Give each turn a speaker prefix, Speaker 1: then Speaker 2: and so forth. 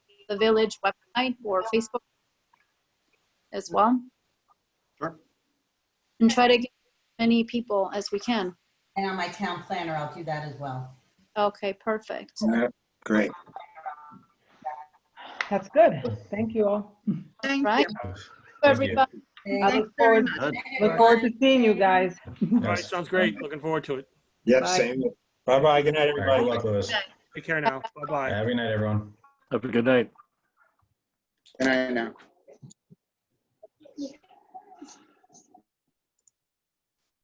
Speaker 1: the village website or Facebook as well.
Speaker 2: Sure.
Speaker 1: And try to get as many people as we can.
Speaker 3: And on my town planner, I'll do that as well.
Speaker 1: Okay, perfect.
Speaker 2: Great.
Speaker 4: That's good. Thank you all.
Speaker 5: Thank
Speaker 1: Right?
Speaker 5: you.
Speaker 1: Everybody,
Speaker 4: I
Speaker 3: Thank
Speaker 4: look forward,
Speaker 3: you.
Speaker 4: look forward to seeing you guys.
Speaker 6: All right, sounds great. Looking forward to it.
Speaker 2: Yep,
Speaker 4: Bye.
Speaker 2: same.
Speaker 7: Bye-bye. Good night,
Speaker 8: All right,
Speaker 7: everybody.
Speaker 8: Good luck with us.
Speaker 6: Take care now. Bye bye.
Speaker 8: Have a good night, everyone.
Speaker 9: Have a good night.
Speaker 2: And I know.